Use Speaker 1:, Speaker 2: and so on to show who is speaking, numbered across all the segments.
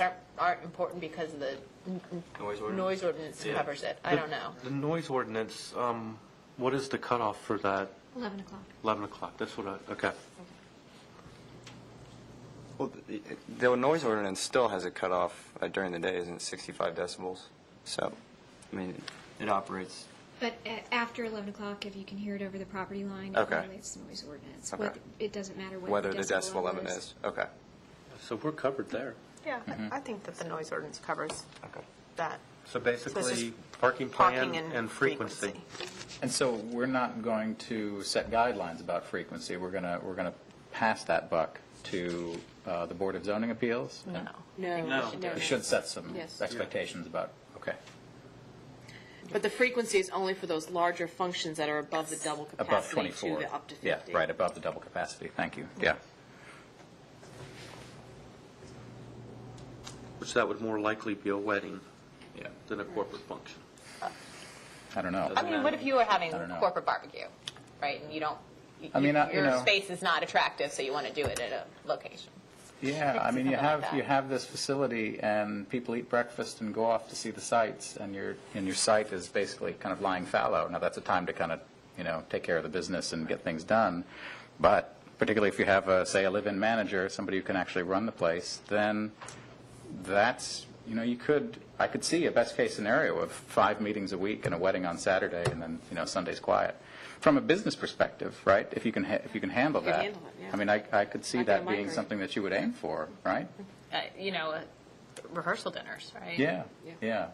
Speaker 1: are- aren't important because the
Speaker 2: Noise ordinance?
Speaker 1: noise ordinance
Speaker 2: Yeah.
Speaker 1: covers it. I don't know.
Speaker 3: The noise ordinance, um, what is the cutoff for that?
Speaker 4: 11 o'clock.
Speaker 3: 11 o'clock, that's what I, okay.
Speaker 2: Well, the- the noise ordinance still has a cutoff uh, during the day, isn't it, 65 decibels? So, I mean, it operates,
Speaker 4: But a- after 11 o'clock, if you can hear it over the property line, it
Speaker 2: Okay.
Speaker 4: violates the noise ordinance.
Speaker 2: Okay.
Speaker 4: Whether- It doesn't matter what
Speaker 2: whether the decibel
Speaker 4: level
Speaker 2: level is. Okay.
Speaker 3: So we're covered there.
Speaker 1: Yeah,
Speaker 5: Mm-hmm.
Speaker 1: I think that the noise ordinance covers
Speaker 2: Okay.
Speaker 1: that.
Speaker 3: So
Speaker 1: This
Speaker 3: basically,
Speaker 1: is
Speaker 3: parking plan and frequency.
Speaker 5: And so we're not going to set guidelines about frequency. We're going to, we're going to pass that buck to uh, the Board of Zoning Appeals?
Speaker 1: No.
Speaker 3: No.
Speaker 5: We should set some
Speaker 6: Yes.
Speaker 5: expectations about, okay,
Speaker 6: But the frequency is only for those larger functions that are above the double
Speaker 5: above
Speaker 6: capacity to
Speaker 5: 24.
Speaker 6: the up to 50.
Speaker 5: Yeah, right, above the double capacity, thank you, yeah.
Speaker 3: Which that would more likely be a wedding
Speaker 5: Yeah.
Speaker 3: than a corporate function.
Speaker 5: I don't know.
Speaker 1: I mean, what if you were having
Speaker 5: I don't know.
Speaker 1: corporate barbecue, right? And you don't, y-
Speaker 5: I mean, I- you
Speaker 1: your
Speaker 5: know-
Speaker 1: space is not attractive, so you want to do it at a location.
Speaker 5: Yeah, I mean, you
Speaker 1: Something like
Speaker 5: have,
Speaker 1: that.
Speaker 5: you have this facility, and people eat breakfast and go off to see the sights, and your, and your site is basically kind of lying fallow. Now, that's a time to kind of, you know, take care of the business and get things done, but particularly if you have, a- say, a live-in manager, somebody who can actually run the place, then that's, you know, you could, I could see a best-case scenario of five meetings a week and a wedding on Saturday, and then, you know, Sunday's quiet. From a business perspective, right, if you can, ha- if you can handle
Speaker 6: You can
Speaker 5: that.
Speaker 6: handle it, yeah.
Speaker 5: I mean, I, I could see
Speaker 6: Not gonna
Speaker 5: that being
Speaker 6: migrate.
Speaker 5: something that you would aim for, right?
Speaker 1: Uh, You know, uh, rehearsal dinners, right?
Speaker 5: Yeah, Mm-hmm.
Speaker 6: Yeah.
Speaker 5: yeah.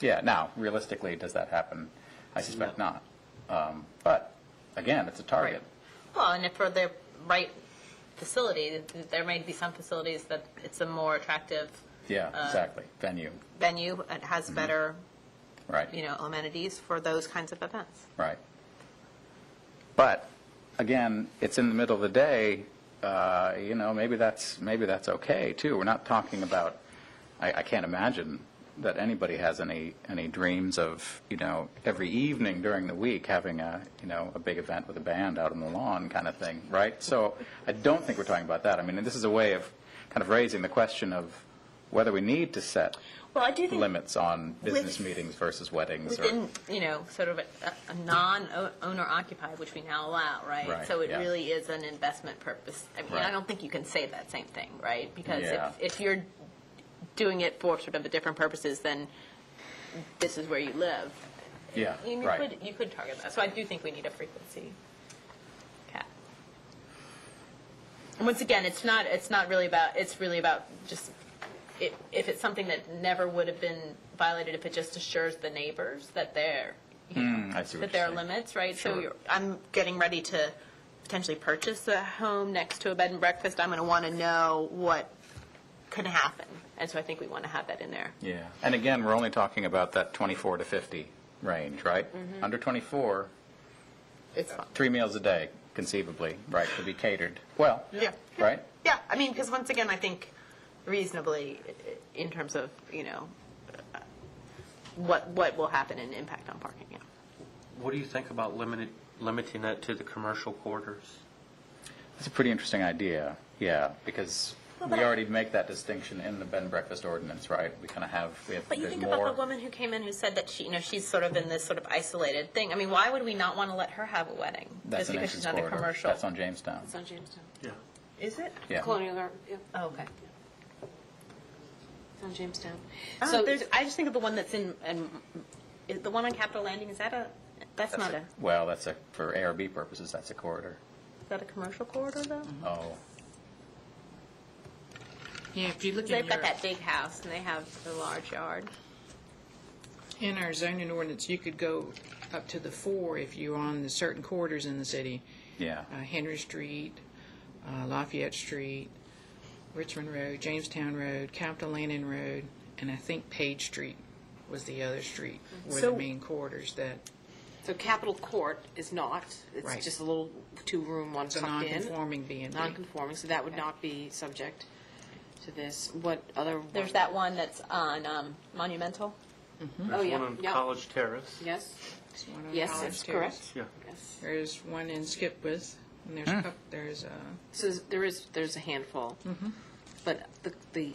Speaker 5: Yeah, now, realistically, does that happen? I suspect not. Um, But, again, it's a target.
Speaker 1: Well, and if for the right facility, th- there may be some facilities that it's a more attractive
Speaker 5: Yeah, exactly, venue,
Speaker 1: venue, it
Speaker 5: Mm-hmm.
Speaker 1: has better,
Speaker 5: right.
Speaker 1: you know, amenities for those kinds of events.
Speaker 5: Right. But, again, it's in the middle of the day, uh, you know, maybe that's, maybe that's okay, too. We're not talking about, I, I can't imagine that anybody has any, any dreams of, you know, every evening during the week having a, you know, a big event with a band out on the lawn kind of thing, right? So I don't think we're talking about that. I mean, this is a way of kind of raising the question of whether we need to set
Speaker 1: Well, I do
Speaker 5: limits on business
Speaker 1: With-
Speaker 5: meetings versus weddings or.
Speaker 1: Within, you know, sort of a, a non-owner occupied, which we now allow, right?
Speaker 5: Right,
Speaker 1: So it
Speaker 5: yeah.
Speaker 1: really is an investment purpose. I mean, I
Speaker 5: Right.
Speaker 1: don't think you can say that same thing, right? Because
Speaker 5: Yeah.
Speaker 1: if, if you're doing it for sort of a different purposes, then this is where you live.
Speaker 5: Yeah,
Speaker 1: You
Speaker 5: right.
Speaker 1: could, you could target that. So I do think we need a frequency cap. And once again, it's not, it's not really about, it's really about just, if, if it's something that never would have been violated, if it just assures the neighbors that they're, you know,
Speaker 5: Hmm. Mm, I see what
Speaker 1: that
Speaker 5: you're
Speaker 1: there are
Speaker 5: saying.
Speaker 1: limits, right? So
Speaker 5: Sure.
Speaker 1: you're, I'm getting ready to potentially purchase a home next to a bed and breakfast. I'm going to want to know what could happen. And so I think we want to have that in there.
Speaker 5: Yeah, and again, we're only talking about that 24 to 50 range, right?
Speaker 1: Mm-hmm.
Speaker 5: Under 24,
Speaker 1: It's fun.
Speaker 5: three meals a day conceivably, right, could be catered. Well,
Speaker 1: Yeah.
Speaker 5: right?
Speaker 1: Yeah, I mean, because once again, I think reasonably, i- i- in terms of, you know, uh, what, what will happen and impact on parking, yeah.
Speaker 3: What do you think about limited, limiting that to the commercial quarters?
Speaker 5: That's a pretty interesting idea, yeah, because we already make that distinction in the bed and breakfast ordinance, right? We kind of have, we have,
Speaker 1: But you
Speaker 5: there's
Speaker 1: think about the
Speaker 5: more.
Speaker 1: woman who came in who said that she, you know, she's sort of in this sort of isolated thing. I mean, why would we not want to let her have a wedding?
Speaker 5: That's
Speaker 1: Just
Speaker 5: an
Speaker 1: because
Speaker 5: entrance
Speaker 1: she's not a
Speaker 5: corridor.
Speaker 1: commercial?
Speaker 5: That's on Jamestown.
Speaker 6: It's on Jamestown.
Speaker 3: Yeah.
Speaker 1: Is it?
Speaker 5: Yeah.
Speaker 6: Colonial, Gar- yeah,
Speaker 1: Oh, okay.
Speaker 6: it's on Jamestown.
Speaker 1: So
Speaker 6: So
Speaker 1: Uh, there's, I just think of the one that's in, in- is the one on Capitol Landing, is that a, that's not a, is
Speaker 5: Well, that's a, for ARB purposes, that's a corridor.
Speaker 1: that a commercial corridor though?
Speaker 5: Oh,
Speaker 7: Yeah, if you look in
Speaker 1: They've got
Speaker 7: your,
Speaker 1: that big house and they have the large yard.
Speaker 7: in our zoning ordinance, you could go up to the four if you're on the certain corridors in the city.
Speaker 5: yeah,
Speaker 7: Uh, Henry Street, uh, Lafayette Street, Richmond Road, Jamestown Road, Capitol Landing Road, and I think Page Street was the other street, were the
Speaker 6: So-
Speaker 7: main corridors that,
Speaker 6: So Capitol Court is not,
Speaker 7: Right.
Speaker 6: it's just a little two-room, one
Speaker 7: it's a
Speaker 6: tucked in.
Speaker 7: non-conforming B and B.
Speaker 6: Non-conforming, so that would not be subject to this. What other? one?
Speaker 1: There's that one that's on um, Monumental.
Speaker 6: Oh,
Speaker 3: There's
Speaker 6: yeah,
Speaker 3: one on
Speaker 6: yeah.
Speaker 3: College Terrace.
Speaker 6: Yes,
Speaker 7: It's one on
Speaker 6: yes,
Speaker 7: College
Speaker 6: that's
Speaker 7: Terrace.
Speaker 6: correct.
Speaker 3: Yeah.
Speaker 6: Yes.
Speaker 7: There's one in Skipwith, and there's, a coup- there's, uh,
Speaker 6: So there is, there's a handful. But the, the